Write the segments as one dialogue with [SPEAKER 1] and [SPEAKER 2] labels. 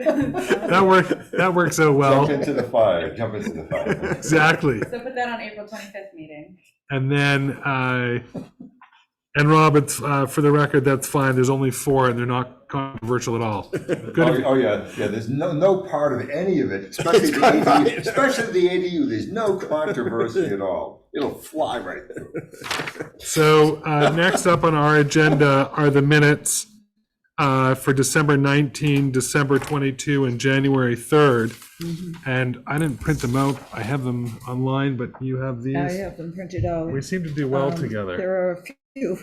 [SPEAKER 1] That worked, that worked so
[SPEAKER 2] Jump
[SPEAKER 1] well.
[SPEAKER 2] into the fire, jump into the fire.
[SPEAKER 1] Exactly.
[SPEAKER 3] So put that on April twenty-fifth meeting.
[SPEAKER 1] And then, uh, and Rob, it's, uh, for the record, that's fine. There's only four and they're not controversial at all.
[SPEAKER 2] Oh,
[SPEAKER 1] Good.
[SPEAKER 2] oh, yeah, yeah, there's no, no part of any of it, especially the
[SPEAKER 4] gone by.
[SPEAKER 2] ADU, especially the ADU, there's no controversy at all. It'll fly right through.
[SPEAKER 1] So, uh, next up on our agenda are the minutes, uh, for December 19, December 22, and January 3rd. And I didn't print them out. I have them online, but you have these.
[SPEAKER 4] I have them printed out.
[SPEAKER 1] We seem to do well
[SPEAKER 4] Um,
[SPEAKER 1] together.
[SPEAKER 4] There are a few,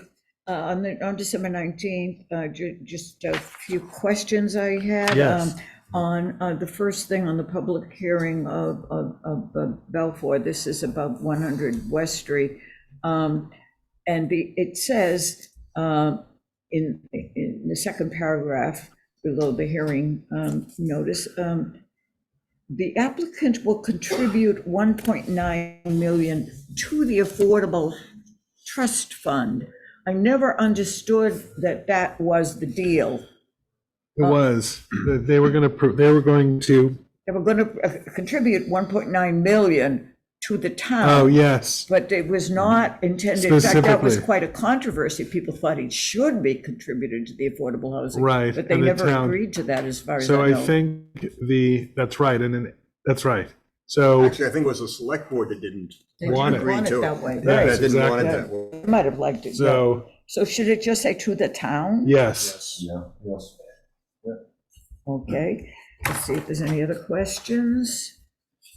[SPEAKER 4] uh, on the, on December 19th, uh, ju- just a few questions I had.
[SPEAKER 1] Yes.
[SPEAKER 4] um, On, uh, the first thing on the public hearing of, of, of uh, Balfour, this is about 100 West Street. Um, And the, it says, um, in, in the second paragraph below the hearing, um, notice, um, the applicant will contribute 1.9 million to the Affordable Trust Fund. I never understood that that was the deal.
[SPEAKER 1] It was, that they were going to, they were going to,
[SPEAKER 4] They were going to contribute 1.9 million to the
[SPEAKER 1] oh,
[SPEAKER 4] town,
[SPEAKER 1] yes.
[SPEAKER 4] but it was not intended. In fact, that was
[SPEAKER 1] Specifically.
[SPEAKER 4] quite a controversy. People thought it should be contributed to the affordable housing.
[SPEAKER 1] Right,
[SPEAKER 4] But they
[SPEAKER 1] and the
[SPEAKER 4] never
[SPEAKER 1] town-
[SPEAKER 4] agreed to that, as far as
[SPEAKER 1] So
[SPEAKER 4] I
[SPEAKER 1] I
[SPEAKER 4] know.
[SPEAKER 1] think the, that's right, and then, that's right. So,
[SPEAKER 5] Actually, I think it was the select board that didn't
[SPEAKER 4] They didn't
[SPEAKER 1] want it.
[SPEAKER 5] agree
[SPEAKER 4] want it
[SPEAKER 5] to
[SPEAKER 4] that way.
[SPEAKER 5] it.
[SPEAKER 1] Yeah,
[SPEAKER 5] That
[SPEAKER 1] Yes,
[SPEAKER 5] didn't want it
[SPEAKER 1] exactly.
[SPEAKER 5] that way.
[SPEAKER 4] Might have liked it. yeah.
[SPEAKER 1] so,
[SPEAKER 4] So should it just say to the town?
[SPEAKER 1] yes.
[SPEAKER 2] Yeah, yes.
[SPEAKER 4] Okay, let's see if there's any other questions.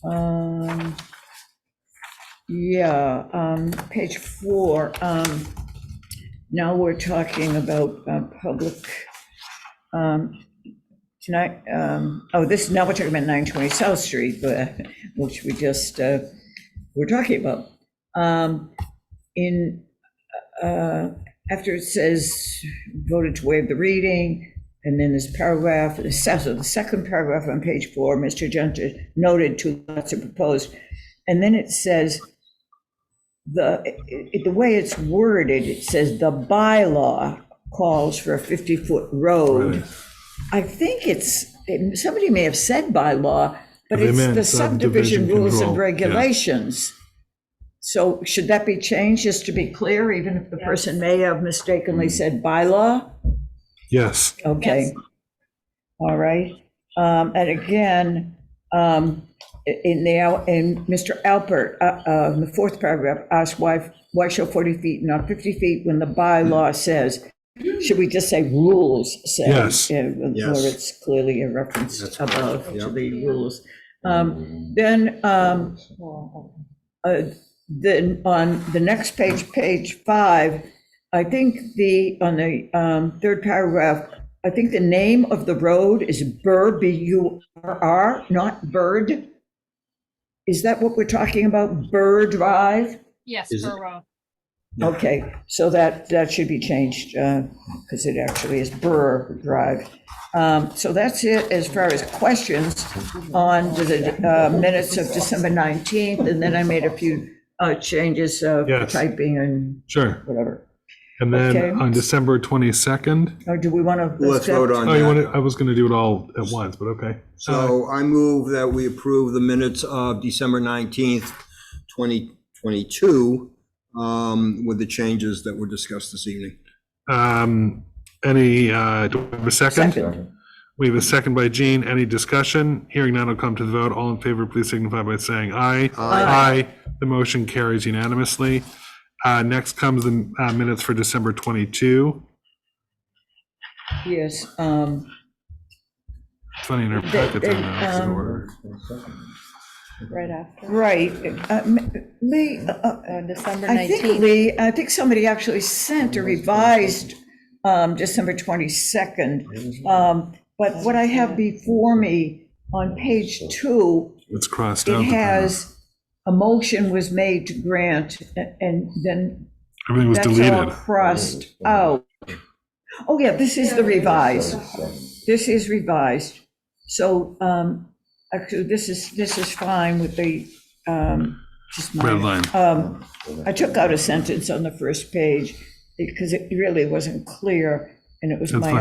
[SPEAKER 4] Um, Yeah, um, page four, um, now we're talking about uh, public, um, tonight, um, oh, this, now we're talking about 920 South Street, but, which we just, uh, we're talking about. Um, In, uh, after it says voted to waive the reading, and then this paragraph, the se- so the second paragraph on page four, Mr. Gentry noted two lots are proposed. And then it says, the, it- it- the way it's worded, it says the bylaw calls for a 50-foot road. I think it's, it- somebody may have said bylaw, but
[SPEAKER 1] They
[SPEAKER 4] it's
[SPEAKER 1] meant
[SPEAKER 4] the
[SPEAKER 1] subdivision
[SPEAKER 4] subdivision rules
[SPEAKER 1] control,
[SPEAKER 4] and
[SPEAKER 1] yeah.
[SPEAKER 4] regulations. So should that be changed, just to be clear, even if the person may have mistakenly said bylaw?
[SPEAKER 1] Yes.
[SPEAKER 4] Okay. All right. Um, And again, um, in the, Al- in Mr. Alpert, uh, uh, in the fourth paragraph, asked why, why show 40 feet, not 50 feet, when the
[SPEAKER 5] Hmm.
[SPEAKER 4] bylaw says, should we just say rules say?
[SPEAKER 1] Yes.
[SPEAKER 4] Yeah, Where
[SPEAKER 5] Yes.
[SPEAKER 4] it's clearly a reference
[SPEAKER 5] That's correct, Hmm.
[SPEAKER 4] above to
[SPEAKER 5] yeah.
[SPEAKER 4] the rules. Um, Then, um, uh, then on the next page, page five, I think the, on the um, third paragraph, I think the name of the road is Burr, B-U-R-R, not Bird. Is that what we're talking about, Burr Drive?
[SPEAKER 6] Yes,
[SPEAKER 5] Is it-
[SPEAKER 6] Burr Road.
[SPEAKER 4] Okay, so that, that should be changed, because it actually is Burr Drive. Um, So that's it as far as questions on to the uh, minutes of December 19th, and then I made a few uh, changes of
[SPEAKER 1] Yes.
[SPEAKER 4] typing and
[SPEAKER 1] Sure.
[SPEAKER 4] whatever.
[SPEAKER 1] And then
[SPEAKER 4] Okay.
[SPEAKER 1] on December 22nd,
[SPEAKER 4] Or do we want to?
[SPEAKER 5] Let's vote on
[SPEAKER 1] oh, you want
[SPEAKER 5] that.
[SPEAKER 1] to, I was going to do it all at once, but okay.
[SPEAKER 5] So I move that we approve the minutes of December 19th, 2022, um, with the changes that were discussed this evening.
[SPEAKER 1] Um, Any, uh, do we have a second?
[SPEAKER 4] Second.
[SPEAKER 1] We have a second by Gene. Any discussion? Hearing none, I'll come to the vote. All in favor, please signify by saying aye. Aye. The motion carries unanimously. Uh, Next comes the uh, minutes for December 22.
[SPEAKER 4] Yes, um,
[SPEAKER 1] Funny in our packet,
[SPEAKER 4] they,
[SPEAKER 1] they're not actually
[SPEAKER 4] um,
[SPEAKER 1] ordered.
[SPEAKER 6] Right after,
[SPEAKER 4] right. uh, m- Lee, uh, uh,
[SPEAKER 6] on December
[SPEAKER 4] I think, Lee, I think somebody actually sent a revised um, December 22nd. um, But what I have before me on page two,
[SPEAKER 1] It's crossed out.
[SPEAKER 4] it has, a motion was made to grant, a- and then
[SPEAKER 1] Everything was
[SPEAKER 4] that's all
[SPEAKER 1] deleted.
[SPEAKER 4] crossed out. Oh, yeah, this is the revised. This is revised. So, um, actually, this is, this is fine with the, um, just my.
[SPEAKER 1] Red line.
[SPEAKER 4] Um, I took out a sentence on the first page because it really wasn't clear and it was
[SPEAKER 1] That's
[SPEAKER 4] my
[SPEAKER 1] fine.